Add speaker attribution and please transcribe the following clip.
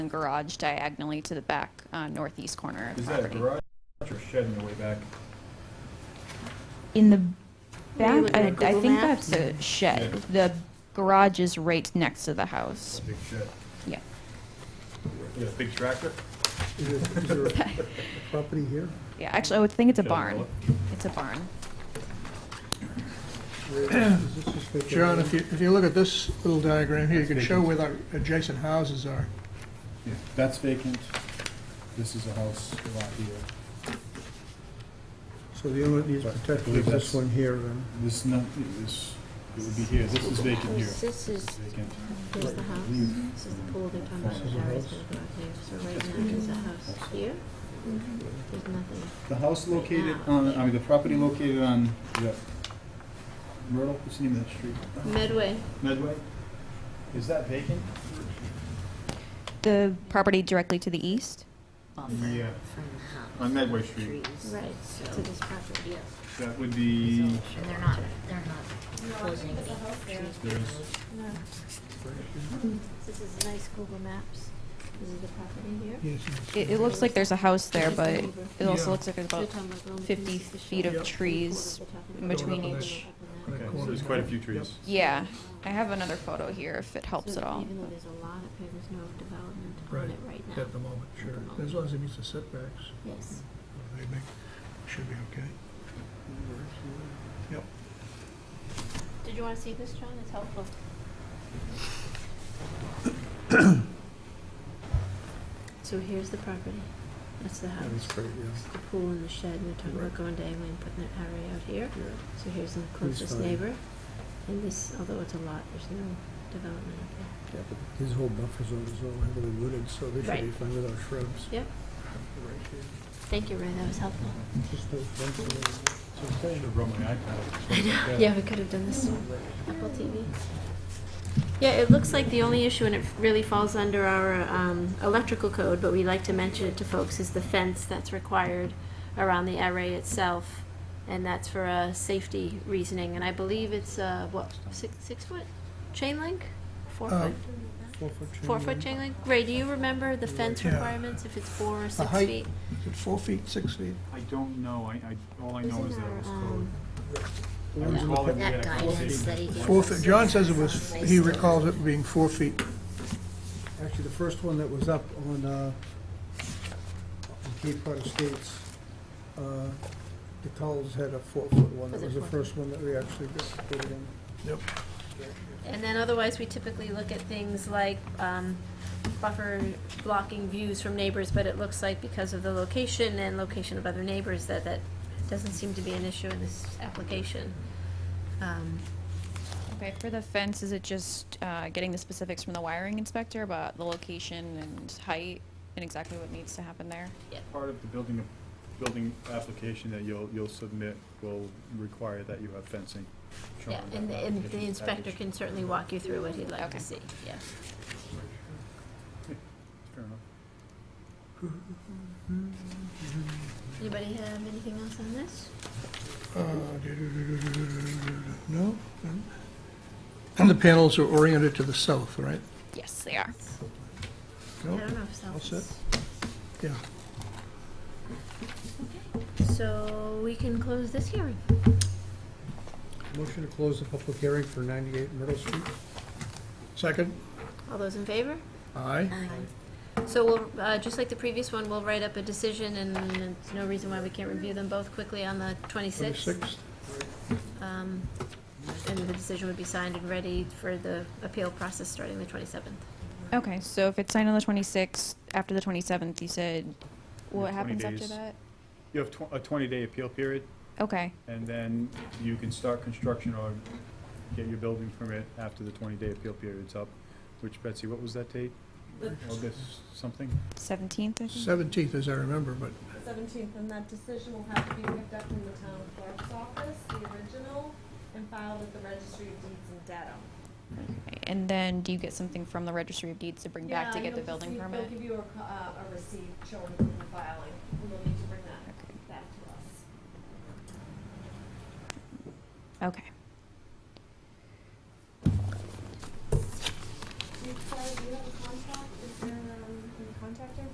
Speaker 1: garage diagonally to the back uh, northeast corner of the
Speaker 2: Is that a
Speaker 1: property.
Speaker 2: garage or shed in the way back?
Speaker 1: In the
Speaker 3: Are
Speaker 1: back,
Speaker 3: you looking
Speaker 1: I,
Speaker 3: at Google
Speaker 1: I think
Speaker 3: Maps?
Speaker 1: that's a shed. The garage is right next to the house.
Speaker 2: Big shed.
Speaker 1: Yeah.
Speaker 2: Yeah, big tractor?
Speaker 4: Is there- is there a property here?
Speaker 1: Yeah, actually, I would think it's a
Speaker 2: Should I
Speaker 1: barn.
Speaker 2: look?
Speaker 1: It's a barn.
Speaker 4: Where- is this just vacant
Speaker 5: John,
Speaker 4: land?
Speaker 5: if you, if you look at this little diagram here, you can show where the adjacent houses are.
Speaker 2: Yeah, that's vacant. This is a house lot here.
Speaker 4: So the only one that needs
Speaker 2: Sorry, I
Speaker 4: protection
Speaker 2: believe
Speaker 4: is this
Speaker 2: that's-
Speaker 4: one here, then?
Speaker 2: This not, this, it would be here. This is vacant here.
Speaker 3: This is,
Speaker 2: Vacant.
Speaker 3: here's the house, this is the pool they're talking about,
Speaker 4: This is a
Speaker 3: Larry's
Speaker 4: house.
Speaker 3: gonna go out there, so right now there's a house here. There's nothing,
Speaker 2: The house located on, I mean, the property located on, the Myrtle, what's the name of that street?
Speaker 3: Medway,
Speaker 2: Medway? Is that vacant?
Speaker 1: The property directly to the east?
Speaker 2: Yeah.
Speaker 6: from the house.
Speaker 2: On Medway Street.
Speaker 6: Trees.
Speaker 3: right,
Speaker 6: So,
Speaker 3: to this property,
Speaker 2: That would be,
Speaker 6: and they're not, they're not closing any trees.
Speaker 2: there's,
Speaker 3: no. This is nice Google Maps, this is the property here.
Speaker 5: Yes,
Speaker 1: It, it looks like there's a house there, but it also
Speaker 5: Yeah.
Speaker 1: looks like there's
Speaker 3: They're
Speaker 1: about
Speaker 3: talking about little
Speaker 1: 50
Speaker 3: pieces of
Speaker 1: feet of
Speaker 3: shrubs.
Speaker 1: trees
Speaker 3: They're talking
Speaker 1: in
Speaker 3: about
Speaker 1: between
Speaker 3: going up
Speaker 5: each.
Speaker 3: and up
Speaker 2: okay,
Speaker 3: and up.
Speaker 2: so there's quite a few trees.
Speaker 1: Yeah, I have another photo here if it helps
Speaker 3: So
Speaker 1: at all.
Speaker 3: Even though there's a lot up here, there's no development
Speaker 5: Right,
Speaker 3: on it right now.
Speaker 5: at the moment, sure. As long as it meets the setbacks,
Speaker 3: Yes.
Speaker 5: they make, should be okay. Yep.
Speaker 3: Did you wanna see this, John? It's helpful. So here's the property. That's the house.
Speaker 4: That's great, yeah.
Speaker 3: The pool and the shed, and they're talking about
Speaker 4: Right.
Speaker 3: going to Anglin, putting that array out here.
Speaker 4: Yeah.
Speaker 3: So here's the closest
Speaker 4: fine.
Speaker 3: neighbor. And this, although it's a lot, there's no development up there.
Speaker 4: Yeah, but His whole buffer zone is all heavily wooded, so they should be
Speaker 3: Right.
Speaker 4: fine without shrubs.
Speaker 3: Yep. Thank you, Ray, that was helpful.
Speaker 4: Just no fence or anything.
Speaker 2: I should have brought my iPad.
Speaker 3: Yeah, we could have done this. Apple TV. Yeah, it looks like the only issue, and it really falls under our um, electrical code, but we like to mention it to folks, is the fence that's required around the array itself, and that's for a safety reasoning, and I believe it's, uh, what, six, six foot chain link? Four
Speaker 5: Uh,
Speaker 3: foot,
Speaker 4: Four-foot chain
Speaker 3: four foot
Speaker 4: link.
Speaker 3: chain link? Ray, do you remember the fence
Speaker 5: Yeah.
Speaker 3: requirements, if it's four or six
Speaker 5: height-
Speaker 3: feet?
Speaker 5: Is it Four feet, six feat?
Speaker 2: I don't know. I, I, all I know
Speaker 3: Isn't
Speaker 2: is that it was
Speaker 3: our,
Speaker 2: code.
Speaker 3: um,
Speaker 4: The ones in the
Speaker 2: Yeah.
Speaker 4: pa-
Speaker 6: That guidance that he gave
Speaker 5: Four
Speaker 6: us
Speaker 5: feet,
Speaker 6: is
Speaker 5: John says it was, he
Speaker 6: based on-
Speaker 5: recalls it being four feet.
Speaker 4: Actually, the first one that was up on, uh, on Cape Cod Estates, uh, the Culls had a four-foot one.
Speaker 3: Was it
Speaker 4: That was the
Speaker 3: four
Speaker 4: first one that we actually got put in.
Speaker 3: And then otherwise, we typically look at things like um, buffer blocking views from neighbors, but it looks like because of the location and location of other neighbors, that that doesn't seem to be an issue in this application. Um,
Speaker 1: Okay, for the fence, is it just uh, getting the specifics from the wiring inspector about the location and height and exactly what needs to happen there?
Speaker 2: Part of the building, building application that you'll, you'll submit will require that you have fencing. shown
Speaker 3: Yeah,
Speaker 2: in
Speaker 3: and the
Speaker 2: that
Speaker 3: and the
Speaker 2: application
Speaker 3: inspector
Speaker 2: package.
Speaker 3: can certainly walk you through what he'd like
Speaker 1: Okay.
Speaker 3: to see, yeah.
Speaker 2: Fair enough.
Speaker 3: Anybody have anything else on this?
Speaker 5: Uh, No? And the panels are oriented to the south, right?
Speaker 1: Yes, they are.
Speaker 3: I
Speaker 5: No?
Speaker 3: don't know if so.
Speaker 5: All set? Yeah.
Speaker 3: So we can close this hearing.
Speaker 4: Motion to close the public hearing for 98 Myrtle Street.
Speaker 5: Second?
Speaker 3: All those in favor?
Speaker 5: Aye.
Speaker 3: So we'll, uh, just like the previous one, we'll write up a decision and there's no reason why we can't review them both quickly on the twenty-sixth.
Speaker 5: Twenty-sixth?
Speaker 3: Um, and the decision would be signed and ready for the appeal process starting the twenty-seventh.
Speaker 1: Okay, so if it's signed on the 26th, after the 27th, you said, what
Speaker 2: 20
Speaker 1: happens after
Speaker 2: days.
Speaker 1: that?
Speaker 2: You have tw- a twenty-day appeal period,
Speaker 1: Okay,
Speaker 2: and then you can start construction or get your building permit after the twenty-day appeal period's up. Which, Betsy, what was that date? August something?
Speaker 1: 17th, I think?
Speaker 5: Seventeenth, as I remember, but
Speaker 7: seventeenth, and that decision will have to be picked up from the town clerk's office, the original, and filed at the registry of deeds in Dedham.
Speaker 1: And then do you get something from the registry of deeds to bring back to get the building permit?
Speaker 7: They'll give you a, co- uh, a receipt showing the filing, and you'll need to bring that
Speaker 1: Okay.
Speaker 7: back to us.
Speaker 1: Okay.
Speaker 7: Do you, Claire, do you have a contract, is there, um, inspector